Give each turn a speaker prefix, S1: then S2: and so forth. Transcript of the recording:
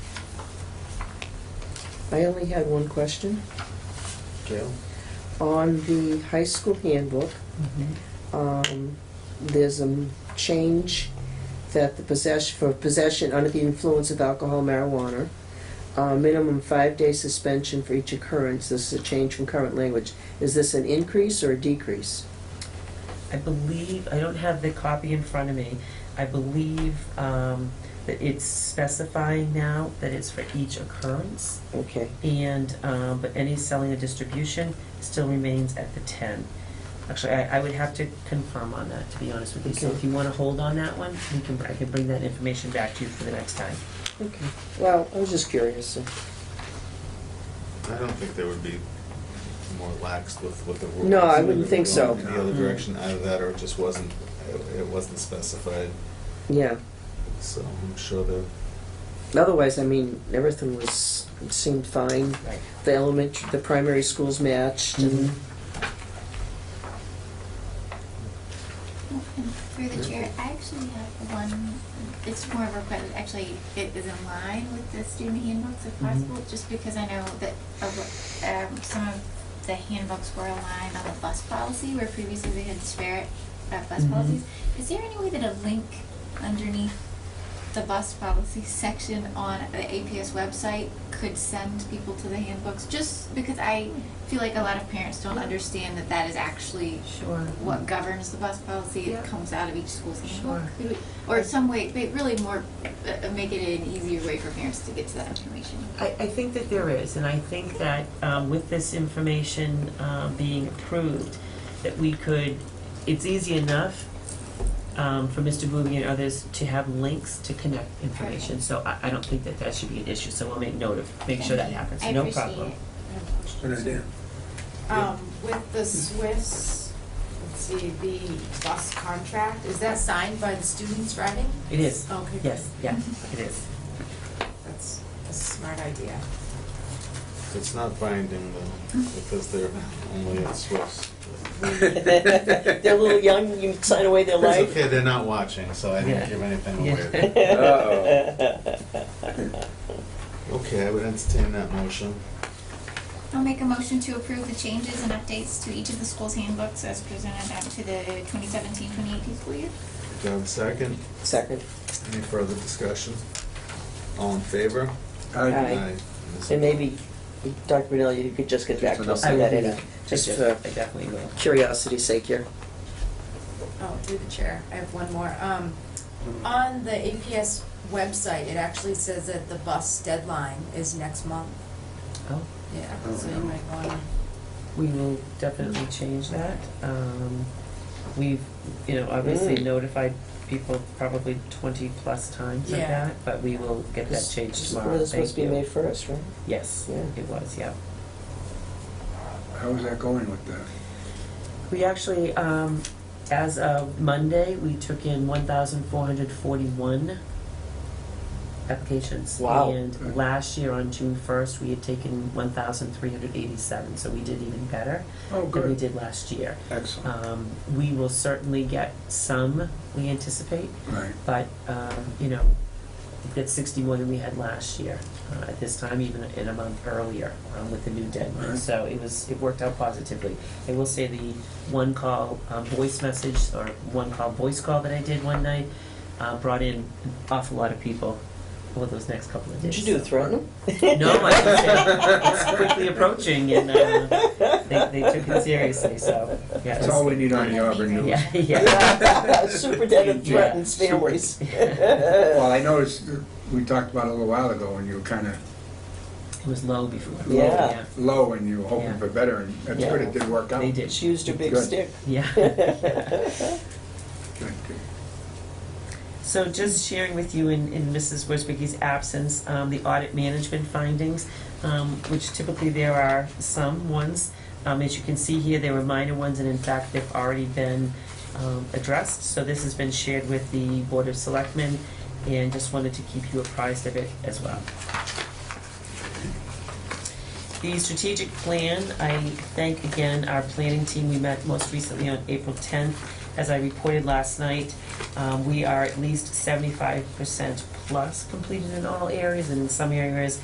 S1: I only had one question, Jill. On the high school handbook, um, there's a m- change that the possession, for possession under the influence of alcohol, marijuana, uh, minimum five-day suspension for each occurrence. This is a change from current language. Is this an increase or a decrease?
S2: I believe, I don't have the copy in front of me, I believe um, that it's specifying now that it's for each occurrence,
S1: Okay,
S2: and, um, but any selling or distribution still remains at the 10. Actually, I I would have to confirm on that, to be honest with you, so
S1: Okay.
S2: if you want to hold on that one, we can, I can bring that information back to you for the next time.
S1: okay. Well, I was just curious.
S3: I don't think there would be more lax with what the rules.
S1: No, I wouldn't think so.
S3: In the other
S2: Mm.
S3: direction out of that, or it just wasn't, it- it wasn't specified,
S1: Yeah.
S3: so I'm sure there,
S1: Otherwise, I mean, everything was, seemed fine.
S2: Right.
S1: The elementary, the primary schools matched and
S4: And Through the chair, I actually have one, it's more of a request, actually, it is in line with the student handbooks if
S2: Mhm.
S4: possible, just because I know that, a lo- um, some of the handbooks were aligned on the bus policy, where previously they had disparate, uh, bus
S2: Mhm.
S4: policies. Is there any way that a link underneath the bus policy section on the APS website could send people to the handbooks? Just because I feel like a lot of parents don't understand that that is actually
S5: Sure.
S4: what governs the bus policy,
S5: Yeah.
S4: it comes out of each school's handbook?
S5: Sure.
S4: Could we- Or some way, they really more, uh, make it an easier way for parents to get to that information.
S2: I, I think that there is, and I think that um, with this information um, being approved, that we could, it's easy enough um, for Mr. Booby and others to have links to connect information, so I, I don't think that that should be an issue, so we'll make note of, make sure that happens, no
S4: I
S2: problem.
S4: appreciate it.
S6: Um, with the Swiss, let's see, the bus contract, is that signed by the students driving?
S2: It is,
S6: Okay.
S2: yes, yeah, it is.
S6: That's a smart idea.
S3: it's not binding though, because they're only at Swiss.
S1: They're a little young, you sign away their
S3: It's
S1: life.
S3: okay, they're not watching, so I
S2: Yeah.
S3: didn't give anything away.
S2: Yeah.
S3: Okay, I would entertain that motion.
S4: I'll make a motion to approve the changes and updates to each of the school's handbooks as presented up to the 2017-2018 school year.
S3: Do I have a second?
S1: Second.
S3: Any further discussion? All in favor?
S1: Aye.
S3: Aye.
S1: And maybe, Dr. Benel, you could just get back to us
S2: I
S1: on
S2: will
S1: that,
S2: do
S1: any,
S2: that. I
S1: just uh,
S2: def-
S1: for
S2: I definitely will.
S1: curiosity's sake here.
S6: Oh, through the chair, I have one more. Um, on the APS website, it actually says that the bus deadline is next month.
S2: Oh,
S6: Yeah, so you might wanna,
S2: we will definitely change that. Um, We've, you know, obviously
S1: Mm.
S2: notified people probably twenty-plus times of
S6: Yeah.
S2: that, but we will get that changed tomorrow,
S1: It was
S2: thank
S1: supposed to be
S2: you.
S1: May first, right?
S2: Yes,
S1: Yeah.
S2: it was, yeah.
S7: How is that going with that?
S2: We actually, um, as of Monday, we took in one thousand four hundred forty-one applications.
S1: Wow.
S2: And last year on June first, we had taken one thousand three hundred eighty-seven, so we did even better
S7: Oh,
S2: than we
S7: good,
S2: did last year.
S7: excellent,
S2: Um, we will certainly get some, we anticipate,
S7: right.
S2: but, um, you know, that's sixty more than we had last year, uh, at this time, even in a month earlier, um, with the new deadline.
S7: Right.
S2: So it was, it worked out positively. I will say the one call, um, voice message, or one call, voice call that I did one night, uh, brought in an awful lot of people over those next couple of
S1: Did
S2: days.
S1: you do, threaten them?
S2: No, I just said, it's quickly approaching, and, uh, they, they took it seriously, so, yeah. it
S7: That's
S2: was-
S7: all we need on the Auburn News.
S2: Yeah, yeah.
S1: Superintendent
S2: Yeah.
S1: threatens families.
S7: Well, I noticed, uh, we talked about it a little while ago, and you were kind of
S2: It was low before.
S1: Yeah.
S7: low, and you were hoping
S2: Yeah.
S7: for better, and that's good, it did work
S2: Yeah,
S7: out.
S2: They did.
S1: She used her big
S7: Good.
S1: stick.
S2: Yeah.
S7: Good, good.
S2: So just sharing with you in, in Mrs. Worsbicky's absence, um, the audit management findings, um, which typically there are some ones. Um, as you can see here, there were minor ones, and in fact, they've already been, um, addressed. So this has been shared with the Board of Selectmen, and just wanted to keep you apprised of it as well. The strategic plan, I thank again our planning team. We met most recently on April 10th. As I reported last night, um, we are at least 75% plus completed in all areas, and in some areas,